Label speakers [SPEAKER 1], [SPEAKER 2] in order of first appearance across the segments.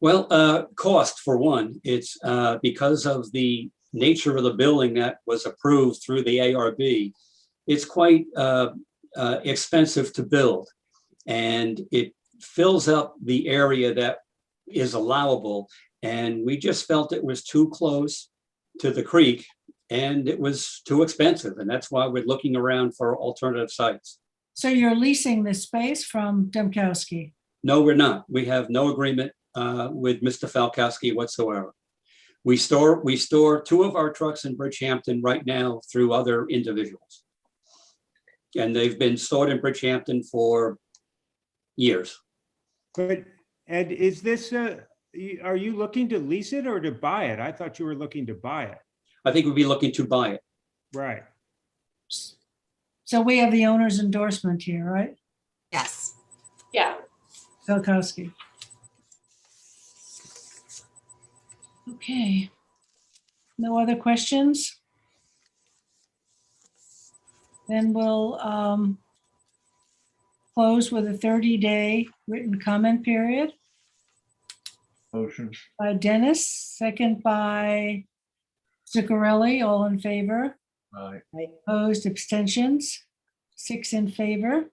[SPEAKER 1] Well, uh, cost for one, it's, uh, because of the nature of the building that was approved through the ARB. It's quite, uh, uh, expensive to build. And it fills up the area that is allowable. And we just felt it was too close to the creek and it was too expensive. And that's why we're looking around for alternative sites.
[SPEAKER 2] So you're leasing this space from Demkowski.
[SPEAKER 1] No, we're not. We have no agreement uh, with Mr. Falkowski whatsoever. We store, we store two of our trucks in Bridgehampton right now through other individuals. And they've been stored in Bridgehampton for years.
[SPEAKER 3] But Ed, is this, uh, y- are you looking to lease it or to buy it? I thought you were looking to buy it.
[SPEAKER 1] I think we'd be looking to buy it.
[SPEAKER 3] Right.
[SPEAKER 2] So we have the owner's endorsement here, right?
[SPEAKER 4] Yes.
[SPEAKER 5] Yeah,
[SPEAKER 2] Filkowski. Okay. No other questions? Then we'll um, close with a 30-day written comment period
[SPEAKER 6] Motion.
[SPEAKER 2] by Dennis, second by Zuccarelli, all in favor.
[SPEAKER 6] Aye.
[SPEAKER 2] Opposed, abstentions, six in favor.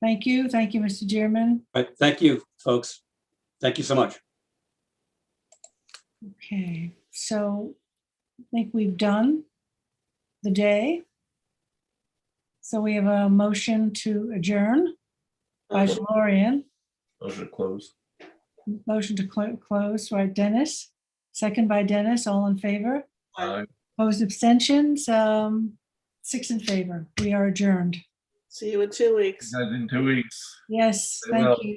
[SPEAKER 2] Thank you, thank you, Mr. Dearman.
[SPEAKER 1] Right, thank you, folks. Thank you so much.
[SPEAKER 2] Okay, so I think we've done the day. So we have a motion to adjourn by Florian,
[SPEAKER 6] Motion to close.
[SPEAKER 2] motion to clo- close, right, Dennis? Second by Dennis, all in favor?
[SPEAKER 6] Aye.
[SPEAKER 2] Opposed, abstentions, um, six in favor. We are adjourned.
[SPEAKER 5] see you in two weeks.
[SPEAKER 6] Guys, in two weeks.
[SPEAKER 2] Yes,
[SPEAKER 6] Very
[SPEAKER 2] thank
[SPEAKER 6] well.
[SPEAKER 2] you.